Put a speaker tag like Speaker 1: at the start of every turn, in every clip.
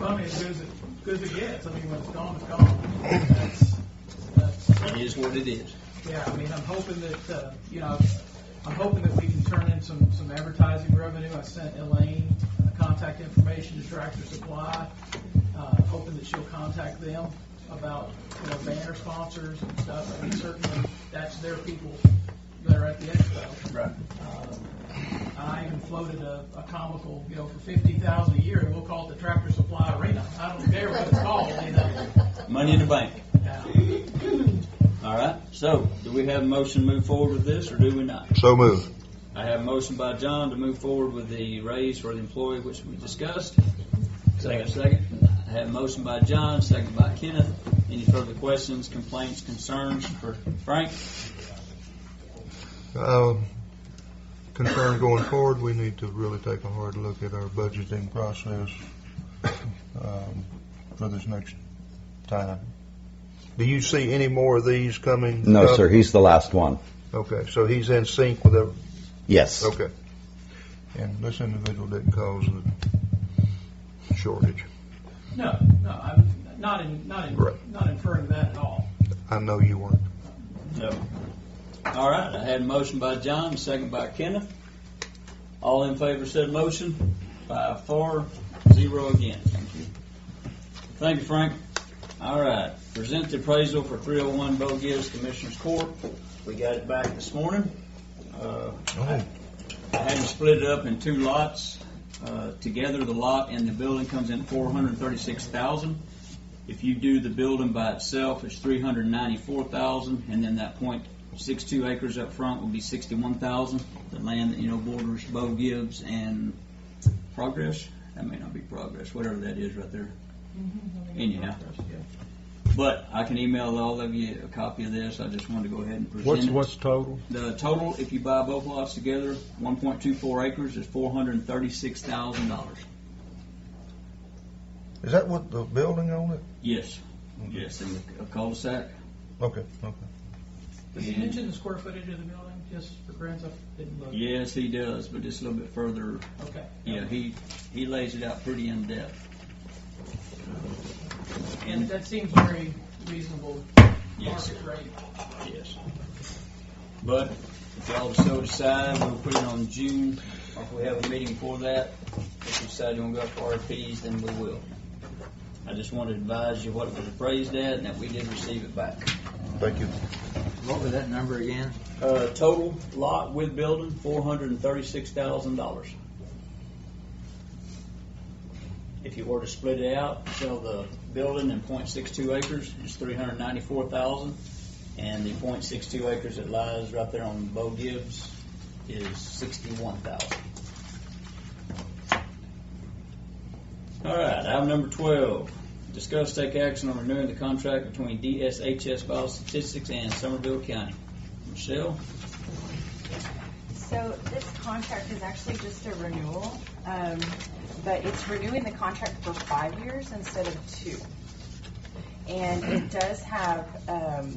Speaker 1: Well, I mean, as good as it, good as it gets, I mean, when it's gone, it's gone. That's, that's,
Speaker 2: It is what it is.
Speaker 1: yeah, I mean, I'm hoping that, uh, you know, I'm hoping that we can turn in some, some advertising revenue. I sent Elaine uh, contact information to Tractor Supply, uh, hoping that she'll contact them about, you know, banner sponsors and stuff. I mean, certainly, that's their people that are at the expo. Uh,
Speaker 2: Right.
Speaker 1: I even floated a, a comical, you know, for fifty thousand a year, we'll call it the Tractor Supply Arena. I don't care what it's called, you know.
Speaker 2: Money in the bank.
Speaker 1: Now,
Speaker 2: All right. So, do we have a motion to move forward with this, or do we not?
Speaker 3: So move.
Speaker 2: I have a motion by John to move forward with the raise for the employee, which we discussed. Second. Second. I have a motion by John, second by Kenneth. Any further questions, complaints, concerns for Frank?
Speaker 3: Um, Concern going forward, we need to really take a hard look at our budgeting process um, for this next time. Do you see any more of these coming?
Speaker 4: No,
Speaker 3: up?
Speaker 4: sir, he's the last one.
Speaker 3: Okay, so he's in sync with, every-
Speaker 4: Yes.
Speaker 3: okay. And this individual didn't cause the shortage.
Speaker 1: No, no, I'm not in, not in,
Speaker 3: Right.
Speaker 1: not inferring that at all.
Speaker 3: I know you weren't.
Speaker 2: No. All right. I had a motion by John, second by Kenneth. All in favor of said motion? By four, zero again. Thank you. Thank you, Frank. All right. Present the appraisal for 301 Bo Gibbs Commissioners Court. We got it back this morning. Uh,
Speaker 3: Oh.
Speaker 2: I had them split it up in two lots. Uh, Together, the lot and the building comes in four hundred and thirty-six thousand. If you do the building by itself, it's three hundred and ninety-four thousand, and then that point six-two acres up front will be sixty-one thousand. The land that, you know, borders Bo Gibbs and Progress, that may not be Progress, whatever that is right there. Anyhow. But I can email all of you a copy of this, I just wanted to go ahead and present it.
Speaker 5: What's, what's total?
Speaker 2: The total, if you buy both lots together, one point two four acres is four hundred and thirty-six thousand dollars.
Speaker 3: Is that what the building on it?
Speaker 2: Yes. Yes, in a cul-de-sac.
Speaker 3: Okay, okay.
Speaker 1: Does he mention the square footage of the building, just for grants, I didn't look?
Speaker 2: Yes, he does, but just a little bit further.
Speaker 1: Okay.
Speaker 2: Yeah, he, he lays it out pretty in depth.
Speaker 1: And that seems very reasonable
Speaker 2: Yes.
Speaker 1: market rate.
Speaker 2: Yes. But if y'all so decide, we'll put it on June, or if we have a meeting for that, if you decide you wanna go up for RFPs, then we will. I just wanted to advise you what it was appraised at and that we did receive it back.
Speaker 3: Thank you.
Speaker 6: What was that number again?
Speaker 2: Uh, total lot with building, four hundred and thirty-six thousand dollars. If you were to split it out, sell the building in .62 acres, it's three hundred and ninety-four thousand. And the .62 acres that lies right there on Bo Gibbs is sixty-one thousand. All right, item number twelve, discuss take action on renewing the contract between DSHS Biostatistics and Somerville County. Michelle?
Speaker 7: So this contract is actually just a renewal, um, but it's renewing the contract for five years instead of two. And it does have, um,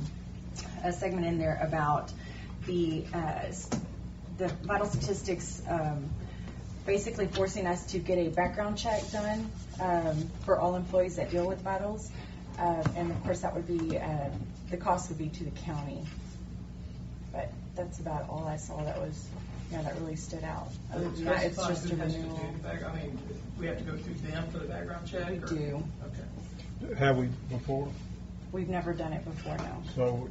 Speaker 7: a segment in there about the, uh, s- the vital statistics, um, basically forcing us to get a background check done, um, for all employees that deal with vitals. Uh, and of course, that would be, uh, the cost would be to the county. But that's about all I saw that was, you know, that really stood out. Other than that, it's
Speaker 1: Specify
Speaker 7: just a
Speaker 1: who has to do
Speaker 7: renewal.
Speaker 1: the back- I mean, we have to go through them for the background check?
Speaker 7: We
Speaker 1: or-
Speaker 7: do.
Speaker 1: Okay.
Speaker 5: Have we before?
Speaker 7: We've never done it before, no.
Speaker 5: So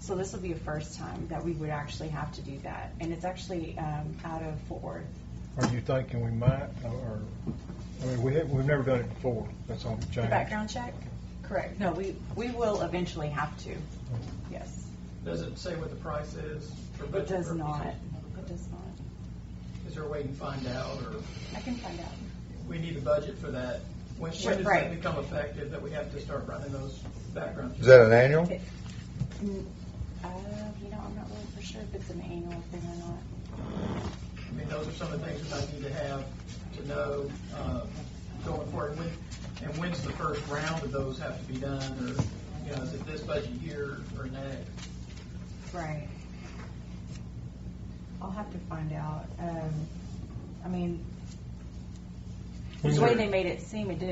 Speaker 7: So this will be a first time that we would actually have to do that. And it's actually um, out of Fort Worth.
Speaker 5: are you thinking we might, or, I mean, we have, we've never done it before. That's all
Speaker 7: The
Speaker 5: changed.
Speaker 7: background check? Correct. No, we, we will eventually have to. Yes.
Speaker 1: Does it say what the price is? for
Speaker 7: It
Speaker 1: budget
Speaker 7: does
Speaker 1: purposes?
Speaker 7: not. It does not.
Speaker 1: Is there a way to find out, or
Speaker 7: I can find out.
Speaker 1: we need a budget for that? When, when does that
Speaker 7: Right.
Speaker 1: become effective, that we have to start running those background checks?
Speaker 3: Is that an annual?
Speaker 7: Uh, you know, I'm not really for sure if it's an annual thing or not.
Speaker 1: I mean, those are some of the things that I need to have to know uh, going forward. When- And when's the first round of those have to be done, or, you know, is it this budget year or next?
Speaker 7: Right. I'll have to find out. Um, I mean,
Speaker 5: We
Speaker 7: the way
Speaker 5: were-
Speaker 7: they made it seem, it didn't